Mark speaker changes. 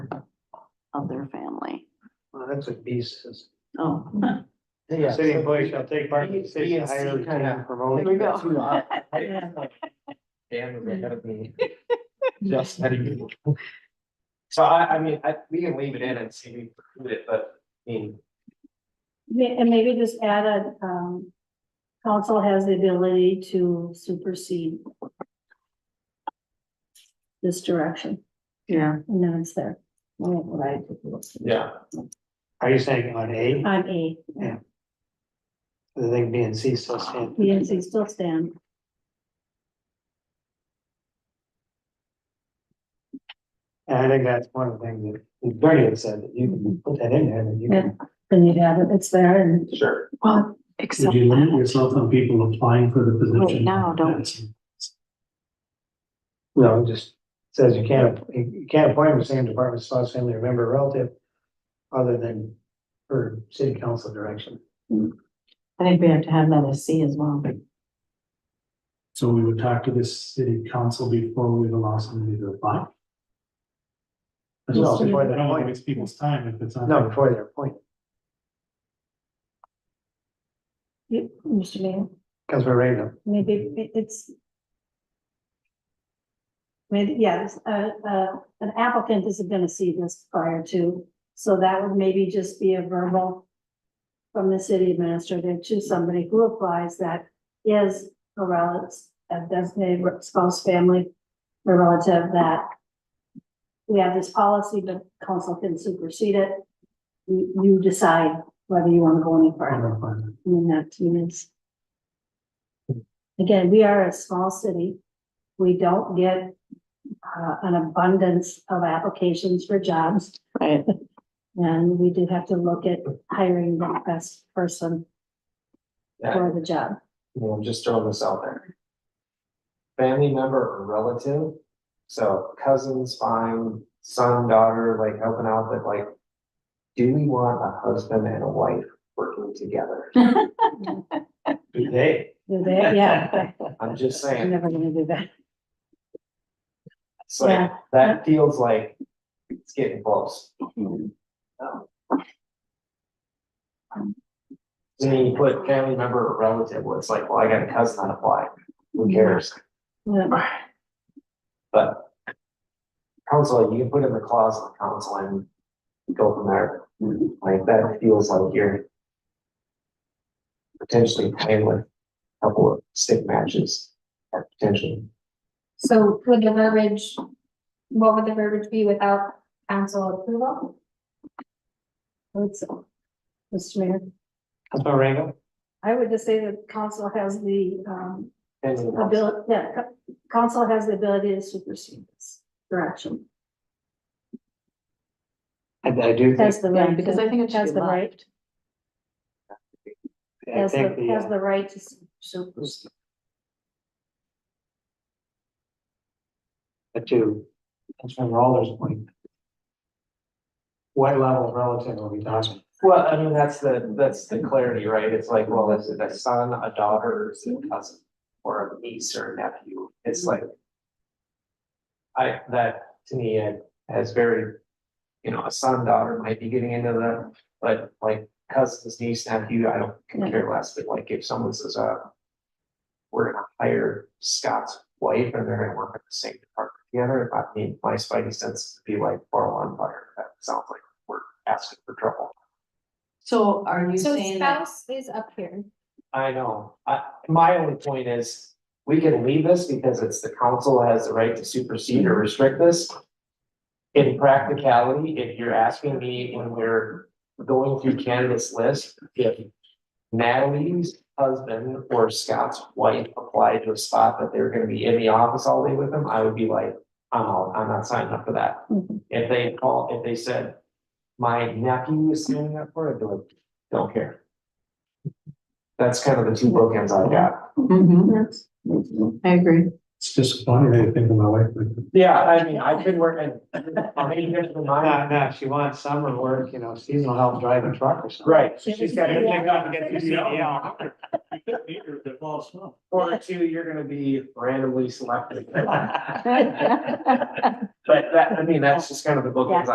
Speaker 1: your family.
Speaker 2: Well, that's what B says.
Speaker 1: Oh,
Speaker 3: Yeah.
Speaker 2: City employees shall take part in the
Speaker 3: B
Speaker 2: city
Speaker 3: and C
Speaker 2: hire, retain,
Speaker 3: kinda-
Speaker 2: promote.
Speaker 1: There you go.
Speaker 3: Too hot. Damn, we're ahead of me. Just letting you. So I, I mean, I, we can leave it in and see if we include it, but, I mean,
Speaker 4: Yeah, and maybe just add a, um, council has the ability to supersede this direction,
Speaker 1: yeah.
Speaker 4: and then it's there. Right.
Speaker 3: yeah,
Speaker 2: Are you saying on A,
Speaker 4: I'm A,
Speaker 2: Yeah. the thing B and C still stand?
Speaker 4: the NC still stand.
Speaker 2: And I think that's one of the things that Bernie had said, that you can put that in there, that you can.
Speaker 4: Then you have it, it's there, and
Speaker 3: sure.
Speaker 1: Well, except
Speaker 5: Would you limit
Speaker 1: that,
Speaker 5: yourself on people applying for the position?
Speaker 1: now, don't-
Speaker 5: That's-
Speaker 2: No, it just says you can't, you can't appoint the same department spouse, family, or member, or relative, other than for city council direction.
Speaker 1: I think we have to have that as C as well.
Speaker 5: So we would talk to this city council before we allow somebody to apply? I
Speaker 2: No,
Speaker 5: just- I
Speaker 2: before they
Speaker 5: don't want
Speaker 2: appoint.
Speaker 5: to waste people's time if it's on.
Speaker 2: No, before they're appointed,
Speaker 4: you, Mr. Mayor,
Speaker 2: Councilman Raven,
Speaker 4: maybe it- it's maybe, yes, uh, uh, an applicant isn't gonna see this prior to, so that would maybe just be a verbal from the city administrator to somebody who applies that is a relative, a designated spouse, family, or relative that we have this policy, but council can supersede it. You, you decide whether you wanna go any further.
Speaker 5: Or appointment.
Speaker 4: I mean, that to me is. Again, we are a small city. We don't get uh, an abundance of applications for jobs.
Speaker 1: Right.
Speaker 4: And we do have to look at hiring the best person
Speaker 3: Yeah,
Speaker 4: for the job.
Speaker 3: you know, I'm just throwing this out there. Family member or relative, so cousins, fine, son, daughter, like helping out, but like, do we want a husband and a wife working together?
Speaker 2: good day.
Speaker 4: Do that, yeah.
Speaker 3: I'm just
Speaker 4: You're
Speaker 3: saying,
Speaker 4: never gonna do that.
Speaker 3: so that feels like it's getting close. I mean, you put family member or relative, well, it's like, well, I got a cousin on a fly, who cares?
Speaker 4: Yeah.
Speaker 3: But council, you can put in the clause on council and go from there. Like, that feels like you're potentially playing with a couple of stick matches, or potentially.
Speaker 6: So would the verbiage, what would the verbiage be without council approval?
Speaker 4: Let's- Mr. Mayor,
Speaker 2: Councilman Raven,
Speaker 4: I would just say that council has the um
Speaker 3: depending on-
Speaker 4: ability, yeah, co- council has the ability to supersede this direction.
Speaker 2: I I do think,
Speaker 4: Has the
Speaker 1: Yeah,
Speaker 4: right. to-
Speaker 1: because I think it should
Speaker 4: Has
Speaker 1: be
Speaker 4: the right,
Speaker 1: left.
Speaker 2: I
Speaker 4: has
Speaker 2: think
Speaker 4: the,
Speaker 2: the,
Speaker 4: has
Speaker 2: uh,
Speaker 4: the right to su- supersede.
Speaker 2: the two, Councilman Roller's point. What level of relative are we talking?
Speaker 3: Well, I mean, that's the, that's the clarity, right? It's like, well, is it a son, a daughter, or is it a cousin? Or a niece or a nephew? It's like. I, that to me uh, has very, you know, a son, daughter might be getting into the, but like cousins, niece, nephew, I don't could care less, but like if someone says, uh. We're gonna hire Scott's wife and they're gonna work at the same department together, I mean, my spidey sense would be like, borrow on fire, that sounds like we're asking for trouble.
Speaker 1: So are you
Speaker 6: So
Speaker 1: saying that?
Speaker 6: spouse is up here.
Speaker 3: I know, I, my only point is, we can leave this because it's the council has the right to supersede or restrict this. In practicality, if you're asking me when we're going through candidates list, if. Natalie's husband or Scott's wife applied to a spot that they were gonna be in the office all day with them, I would be like, I'm out, I'm not signing up for that.
Speaker 4: Mhm.
Speaker 3: If they call, if they said, my nephew is signing up for it, I'd be like, don't care. That's kind of the two bookends I got.
Speaker 1: Mhm. Mm-hmm. I agree.
Speaker 5: It's just one way to think of my wife. but-
Speaker 3: Yeah, I mean, I've been working. how many years of mine?
Speaker 2: No, no, if she wants summer work, you know, seasonal help, drive a truck or something.
Speaker 3: Right,
Speaker 2: She's got to pick up and get the E CDL.
Speaker 3: or two, you're gonna be randomly selected. But that, I mean, that's just kind of the bookends